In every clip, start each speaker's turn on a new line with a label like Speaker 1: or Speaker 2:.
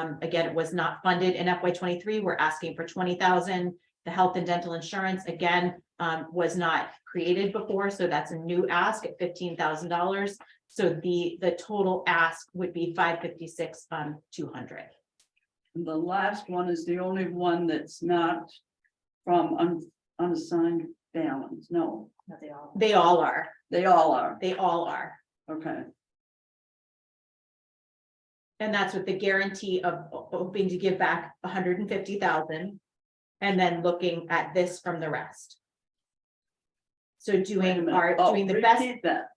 Speaker 1: Um, again, it was not funded in FY twenty-three. We're asking for twenty thousand. The health and dental insurance, again, um, was not created before, so that's a new ask at fifteen thousand dollars. So the, the total ask would be five fifty-six, um, two hundred.
Speaker 2: And the last one is the only one that's not from un- unassigned balance, no,
Speaker 1: They all are,
Speaker 2: they all are,
Speaker 1: they all are.
Speaker 2: okay.
Speaker 1: And that's with the guarantee of ho- hoping to give back hundred and fifty thousand. And then looking at this from the rest. So
Speaker 2: Wait a
Speaker 1: doing
Speaker 2: minute.
Speaker 1: our,
Speaker 2: Oh,
Speaker 1: doing the best,
Speaker 2: repeat That,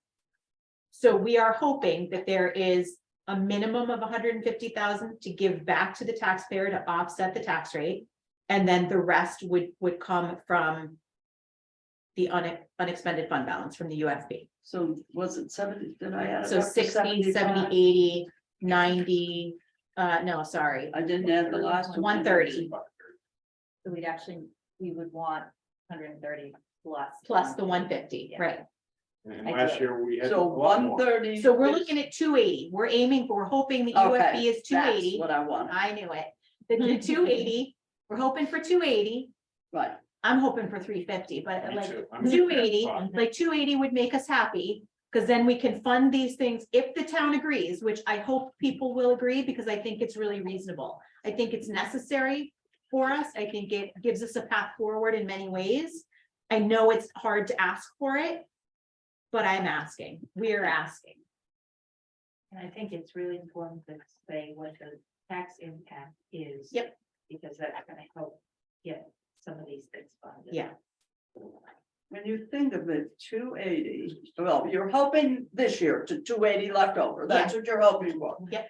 Speaker 1: so we are hoping that there is a minimum of hundred and fifty thousand to give back to the taxpayer to offset the tax rate. And then the rest would, would come from. The une- unexpended fund balance from the UFB.
Speaker 2: so was it seventy, did I add? it
Speaker 1: So
Speaker 2: up to
Speaker 1: 60, 70, 80, 90.
Speaker 2: 75?
Speaker 1: uh, no, sorry.
Speaker 2: I didn't add the last. one.
Speaker 1: 130.
Speaker 3: So we'd actually, we would want hundred and thirty plus. Um,
Speaker 1: plus the one fifty,
Speaker 3: Yeah.
Speaker 1: right?
Speaker 4: And last year we had. a
Speaker 2: So
Speaker 4: lot more.
Speaker 2: one thirty.
Speaker 1: So we're looking at two eighty, we're aiming, for. we're hoping the
Speaker 2: Okay,
Speaker 1: UFB is two eighty,
Speaker 2: What I want,
Speaker 1: I knew it. The- The two eighty, we're hoping for two eighty,
Speaker 2: right,
Speaker 1: I'm hoping for three fifty, but
Speaker 4: Me
Speaker 1: like,
Speaker 4: too. I'm in
Speaker 1: two
Speaker 4: that
Speaker 1: eighty,
Speaker 4: spot.
Speaker 1: like two eighty would make us happy. Cause then we can fund these things if the town agrees, which I hope people will agree, because I think it's really reasonable. I think it's necessary for us, I think it gives us a path forward in many ways. I know it's hard to ask for it. But I'm asking, we are asking.
Speaker 3: And I think it's really important to say what the tax impact is.
Speaker 1: Yep.
Speaker 3: Because that's gonna help get some of these things funded.
Speaker 1: Yeah.
Speaker 2: when you think of it, two eighty, well, you're hoping this year to two eighty left over, that's what you're hoping for.
Speaker 1: Yep.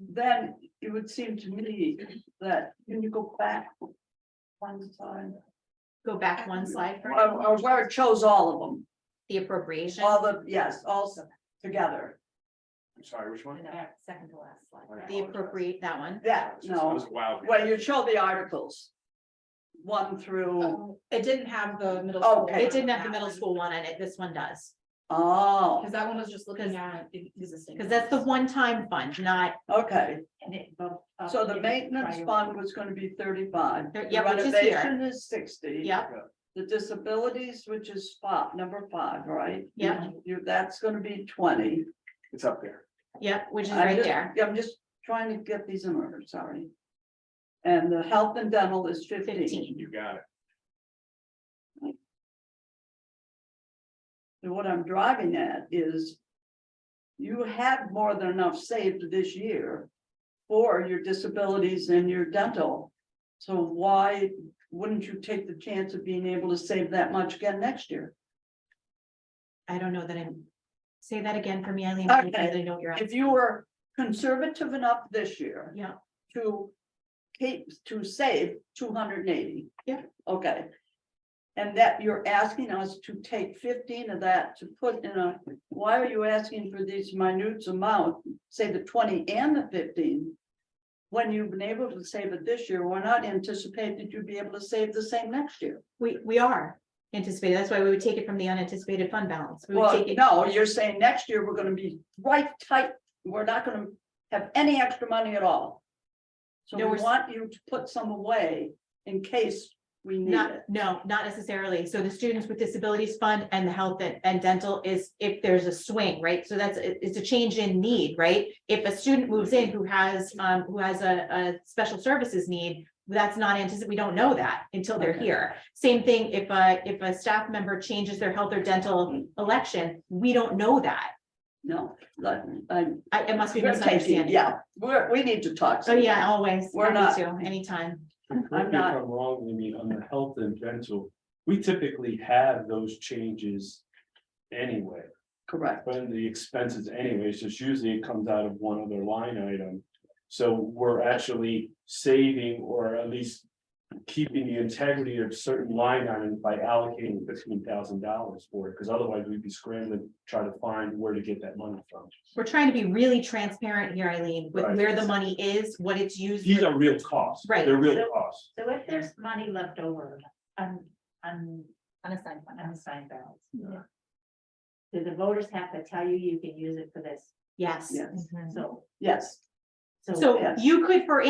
Speaker 2: Then it would seem to me that, can you go back one time?
Speaker 1: Go back one slide for
Speaker 2: Or, or where it shows all of them,
Speaker 1: the appropriation.
Speaker 2: all the, yes, also together,
Speaker 4: I'm sorry, which one?
Speaker 3: And the back- Second to last slide.
Speaker 1: The appropriate, that one.
Speaker 2: that,
Speaker 4: That
Speaker 2: no,
Speaker 4: was wild.
Speaker 2: where you show the articles. One through,
Speaker 5: It didn't have the middle.
Speaker 2: Oh. Okay.
Speaker 5: school
Speaker 1: It didn't have the
Speaker 5: on
Speaker 1: middle
Speaker 5: that
Speaker 1: school one in it, this one does.
Speaker 5: one,
Speaker 2: oh,
Speaker 5: Cause that one was just looking
Speaker 1: 'Cause-
Speaker 5: at the existing.
Speaker 1: Because that's the one-time fund, not,
Speaker 2: okay,
Speaker 3: And it bumped up
Speaker 2: so the
Speaker 3: in
Speaker 2: maintenance
Speaker 3: priority.
Speaker 2: fund was gonna be thirty-five.
Speaker 1: There-
Speaker 2: the
Speaker 1: yeah, which is here.
Speaker 2: Renovation is sixty.
Speaker 1: Yep.
Speaker 2: The disabilities, which is five, number five, right?
Speaker 1: Yeah.
Speaker 2: You, that's gonna be twenty.
Speaker 4: It's up there.
Speaker 1: yep, which is
Speaker 2: I'm
Speaker 1: right
Speaker 2: just-
Speaker 1: there,
Speaker 2: I'm just trying to get these in order, sorry. And the health and dental is fifteen,
Speaker 1: fifteen.
Speaker 4: You got it.
Speaker 2: and what I'm driving at is. You have more than enough saved this year for your disabilities and your dental. So why wouldn't you take the chance of being able to save that much again next year?
Speaker 1: I don't know that I'm, say that again for me, Eileen. I don't
Speaker 2: Okay.
Speaker 1: really know what you're
Speaker 2: If
Speaker 1: asking.
Speaker 2: you were conservative enough this year.
Speaker 1: Yeah.
Speaker 2: To keep, to save two hundred and eighty.
Speaker 1: Yeah.
Speaker 2: Okay. And that you're asking us to take fifteen of that to put in a, why are you asking for these minute amount, say the twenty and the fifteen? When you've been able to save it this year, we're not anticipating that you'd be able to save the same next year.
Speaker 1: We, we are anticipated, that's why we would take it from the unanticipated fund balance. We would
Speaker 2: Well,
Speaker 1: take it,
Speaker 2: no, you're saying next year we're gonna be right tight, we're not gonna have any extra money at all. So we
Speaker 1: No, we're s-
Speaker 2: want you to put some away in case we need
Speaker 1: not,
Speaker 2: it.
Speaker 1: no, not necessarily. So the Students with Disabilities Fund and the Health and- and Dental is if there's a swing, right? So that's, it- it's a change in need, right? If a student moves in who has, um, who has a, a special services need, that's not anticipated, we don't know that until they're
Speaker 2: Okay.
Speaker 1: here. Same thing if a, if a staff member changes their health or dental election, we don't know that.
Speaker 2: No, like, I.
Speaker 1: I, it must be
Speaker 2: we're taking-
Speaker 1: misunderstanding.
Speaker 2: Yeah, we're, we need to talk.
Speaker 1: Oh, yeah, always.
Speaker 2: We're
Speaker 1: Happy to, Anytime.
Speaker 6: Correct me if
Speaker 2: not-
Speaker 6: I'm wrong, Amy, on the health and dental, we typically have those changes anyway,
Speaker 2: Correct,
Speaker 6: but the expenses anyways, just usually it comes out of one other line item. So we're actually saving or at least keeping the integrity of certain line items by allocating fifteen thousand dollars for it, because otherwise we'd be scrambling, trying to find where to get that money from.
Speaker 1: We're trying to be really transparent here, Eileen, with
Speaker 6: Right.
Speaker 1: where the money is, what it's used.
Speaker 6: These
Speaker 1: for.
Speaker 6: are real costs,
Speaker 1: Right.
Speaker 6: they're real costs.
Speaker 3: So if there's money left over, un, un. Unassigned. Unassigned balance. Do the voters have to tell you you can use it for this?
Speaker 1: Yes,
Speaker 2: yes,
Speaker 3: Mm-hmm. So
Speaker 2: yes.
Speaker 1: Mm-hmm. So
Speaker 2: Yeah.
Speaker 1: you could, for